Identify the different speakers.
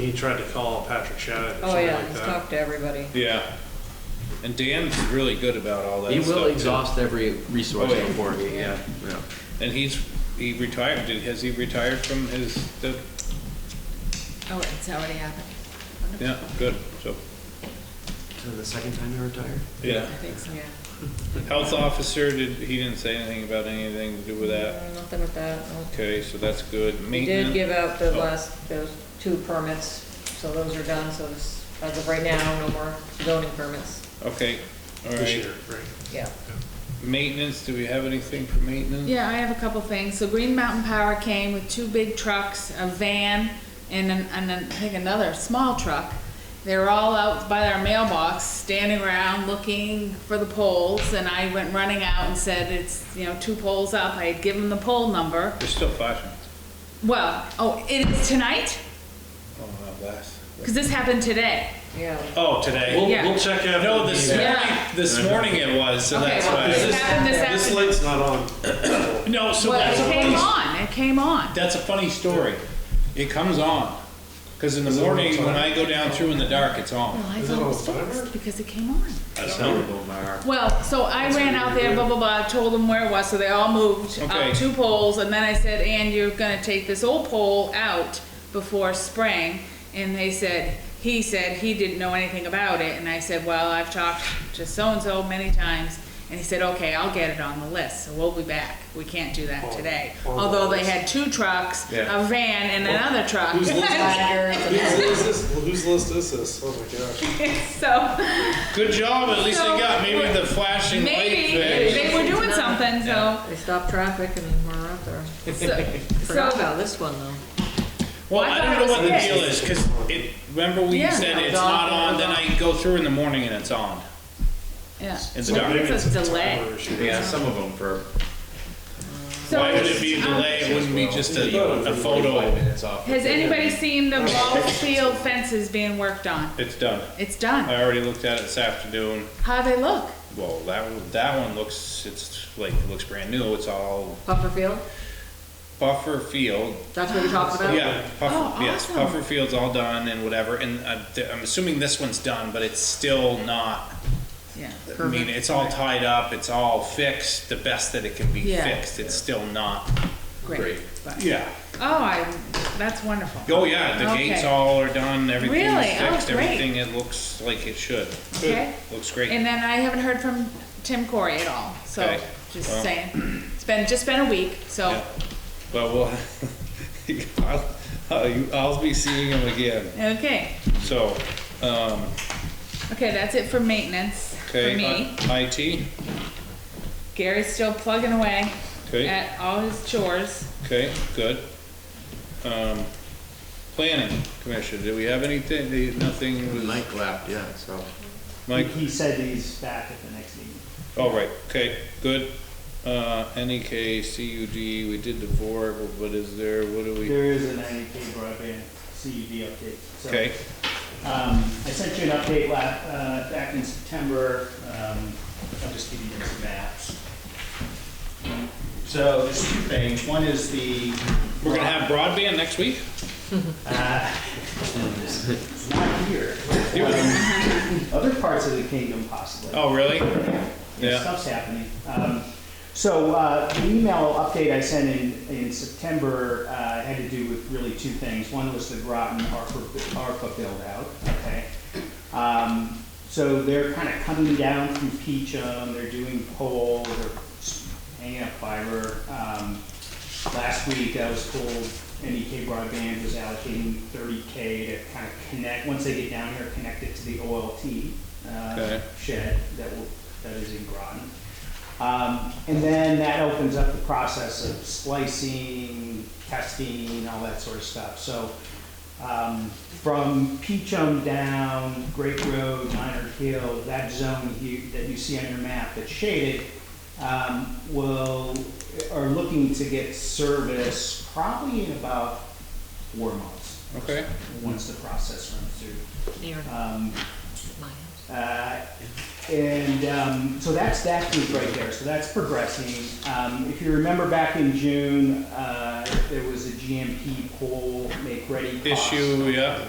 Speaker 1: He tried to call Patrick Shadid or
Speaker 2: Oh,
Speaker 1: something
Speaker 2: yeah,
Speaker 1: like
Speaker 2: just
Speaker 1: that.
Speaker 2: talk to everybody.
Speaker 3: Yeah. And Dan's really good about all that
Speaker 4: He
Speaker 3: stuff.
Speaker 4: will
Speaker 3: too.
Speaker 4: exhaust every resource
Speaker 3: Oh, yeah.
Speaker 4: before me, yeah, yeah.
Speaker 3: And he's, he retired, did, has he retired from his, the,
Speaker 5: Oh, it's already happened. Wonderful.
Speaker 3: yeah, good, so,
Speaker 4: So the second time you retired?
Speaker 3: yeah.
Speaker 5: I think so, yeah.
Speaker 3: Health officer, did, he didn't say anything about anything to do with that?
Speaker 2: Mm, Nothing with that. no.
Speaker 3: Okay, so that's good.
Speaker 2: We did
Speaker 3: Maintenance.
Speaker 2: give out the
Speaker 3: Oh.
Speaker 2: last, those two permits, so those are done, so it's, as of right now, no more zoning permits.
Speaker 3: Okay, all
Speaker 1: This
Speaker 3: right.
Speaker 1: year, right.
Speaker 2: Yeah.
Speaker 3: Maintenance, do we have anything for maintenance?
Speaker 5: Yeah, I have a couple things. So Green Mountain Power came with two big trucks, a van, and an, and an- I think another small truck. They were all out by their mailbox, standing around looking for the poles, and I went running out and said, it's, you know, two poles up. I had given the pole number.
Speaker 3: There's still flashing.
Speaker 5: Well, oh, it is tonight?
Speaker 3: Oh, no, last.
Speaker 5: Because this happened today.
Speaker 2: Yeah.
Speaker 3: Oh, today.
Speaker 1: We'll,
Speaker 5: Yeah.
Speaker 1: we'll check out.
Speaker 3: No,
Speaker 1: the
Speaker 3: this
Speaker 1: email.
Speaker 3: morning,
Speaker 5: Yeah.
Speaker 3: this morning it was, so
Speaker 5: Okay,
Speaker 3: that's
Speaker 5: well,
Speaker 3: why.
Speaker 5: this happened this
Speaker 1: This
Speaker 5: afternoon.
Speaker 1: light's not on.
Speaker 3: No, so
Speaker 5: Well,
Speaker 3: that's a
Speaker 5: it
Speaker 3: funny,
Speaker 5: came on, it came on.
Speaker 3: that's a funny story. It comes on. Cause in the
Speaker 1: Is it on
Speaker 3: morning, when
Speaker 1: time?
Speaker 3: I go down through in the dark, it's on.
Speaker 5: Well, I
Speaker 1: Is it
Speaker 5: thought it
Speaker 1: on
Speaker 5: was
Speaker 1: timer?
Speaker 5: fixed because it came on.
Speaker 3: That's
Speaker 5: Well, so I ran out there, blah, blah, blah, told them where it was, so they all moved
Speaker 3: Okay.
Speaker 5: up two poles, and then I said, and you're gonna take this old pole out before spring, and they said, he said he didn't know anything about it, and I said, well, I've talked to so-and-so many times, and he said, okay, I'll get it on the list, so we'll be back, we can't do that today.
Speaker 1: on the
Speaker 5: Although they
Speaker 1: list.
Speaker 5: had two trucks,
Speaker 3: Yeah.
Speaker 5: a van and another truck.
Speaker 1: Whose list,
Speaker 2: Ladders and-
Speaker 1: whose list is, whose list is this? Oh my gosh.
Speaker 5: So,
Speaker 3: Good job, at least they got maybe the flashing light
Speaker 5: maybe,
Speaker 3: fixed.
Speaker 5: they were doing something, so.
Speaker 2: They stopped traffic and we're out there.
Speaker 5: So,
Speaker 2: Forgot
Speaker 5: so
Speaker 2: about this one, though.
Speaker 3: Well,
Speaker 5: Well, I
Speaker 3: I
Speaker 5: thought
Speaker 3: don't
Speaker 5: it
Speaker 3: know what
Speaker 5: was
Speaker 3: the
Speaker 5: fixed.
Speaker 3: deal is, cause it, remember we
Speaker 5: Yeah.
Speaker 3: said it's
Speaker 2: It's on,
Speaker 3: not on,
Speaker 2: it's
Speaker 3: then
Speaker 2: on.
Speaker 3: I go through in the morning and it's on.
Speaker 5: Yeah.
Speaker 3: In the
Speaker 5: So
Speaker 3: dark.
Speaker 5: It's a delay.
Speaker 1: timer issue.
Speaker 4: Yeah, some of them for.
Speaker 5: So,
Speaker 3: Why would it be a delay? It wouldn't be just a, a photo.
Speaker 4: minutes off.
Speaker 5: Has anybody seen the ball field fences being worked on?
Speaker 3: It's done.
Speaker 5: It's
Speaker 3: I
Speaker 5: done.
Speaker 3: already looked at it this afternoon.
Speaker 5: How they look?
Speaker 3: Well, that one, that one looks, it's like, looks brand new. It's all
Speaker 2: Pufferfield,
Speaker 3: buffer field,
Speaker 2: that's what you're talking about?
Speaker 3: Yeah,
Speaker 5: Oh,
Speaker 3: Puffer, yes,
Speaker 5: awesome.
Speaker 3: Puffer Field's all done and whatever, and I'm, I'm assuming this one's done, but it's still not,
Speaker 5: Yeah.
Speaker 3: I mean, it's all tied up, it's all fixed, the best that it can be
Speaker 5: Yeah.
Speaker 3: fixed, it's still not.
Speaker 5: Great.
Speaker 4: Great.
Speaker 5: But-
Speaker 3: Yeah.
Speaker 5: Oh, I, that's wonderful.
Speaker 3: Oh, yeah, the gates
Speaker 5: Okay.
Speaker 3: all are done,
Speaker 5: Really?
Speaker 3: everything's
Speaker 5: Oh,
Speaker 3: fixed,
Speaker 5: great.
Speaker 3: everything, it looks like it should,
Speaker 5: Okay.
Speaker 3: looks great.
Speaker 5: And then I haven't heard from Tim Corey at all, so
Speaker 3: Okay.
Speaker 5: just
Speaker 3: Well.
Speaker 5: saying. It's been, just been a week,
Speaker 3: Yeah.
Speaker 5: so,
Speaker 3: But we'll, I'll- I'll, I'll be seeing him again,
Speaker 5: okay.
Speaker 3: so, um,
Speaker 5: Okay, that's it for maintenance, for
Speaker 3: okay, uh,
Speaker 5: me.
Speaker 3: I- IT,
Speaker 5: Gary's still plugging away
Speaker 3: okay.
Speaker 5: at all his chores.
Speaker 3: Okay, good. Um, planning commission, do we have anything, do you- nothing with
Speaker 4: Mike left, yeah, so.
Speaker 3: Mike?
Speaker 6: He said he's back at the next meeting.
Speaker 3: All right, okay, good. Uh, NEK, CUD, we did the VORG, what is there, what do we,
Speaker 6: There is an IDK broadband CUD update. so,
Speaker 3: okay,
Speaker 6: Um, I sent you an update la, uh, back in September, um, I'll just give you those maps. So there's two things, one is the.
Speaker 3: we're gonna have broadband next week?
Speaker 6: It's not here. Um, Other parts of the kingdom possibly.
Speaker 3: Oh, really?
Speaker 6: Yeah,
Speaker 3: Yeah.
Speaker 6: stuff's happening. Um, So uh, the email update I sent in, in September uh, had to do with really two things. One was the Groton ARPA, ARPA build out, okay? Um, So they're kind of coming down through Peachum, they're doing pole, they're s- hanging up fiber. Um, Last week, I was told NEK Broadband was allocating thirty K to kind of connect, once they get down here, connect it to the OLT uh,
Speaker 3: Okay.
Speaker 6: shed that will, that is in Groton. Um, And then that opens up the process of splicing, testing, all that sort of stuff. So um, from Peachum down, Great Road, Minor Hill, that zone you- that you see on your map that's shaded, um, will, are looking to get service probably in about four months,
Speaker 3: Okay,
Speaker 6: once the process runs through.
Speaker 2: Near
Speaker 6: Um,
Speaker 2: my house.
Speaker 6: uh, And um, so that's that group right there, so that's progressing. Um, If you remember back in June, uh, there was a GMP poll make ready cost.
Speaker 3: issue, yeah.